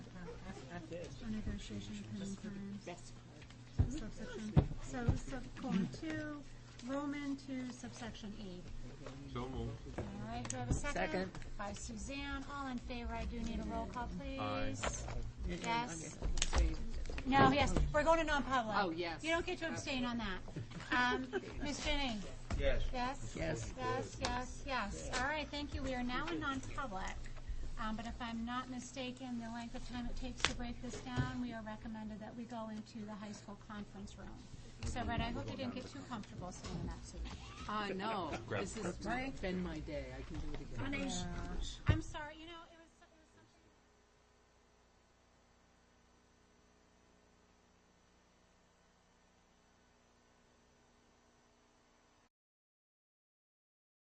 Association Just for the Complaints. best part. subsection, so subcolon two, Roman two, subsection E. So moved. All right, do I have a second? Second. By Suzanne, all in favor, I do need a roll call, Aye. please. Mm-mm, Yes. okay. So you- No, yes, we're going to non-public. Oh, yes. You don't get to abstain on that. Um, Ms. Jennings? Yes. Yes? Yes. Yes, yes, yes. All right, thank you. We are now in non-public. Um, but if I'm not mistaken, the length of time it takes to break this down, we are recommended that we go into the high school conference room. So, Red, I hope you didn't get too comfortable sitting in that seat. I know, Grab this has been my day, I can do it again. I'm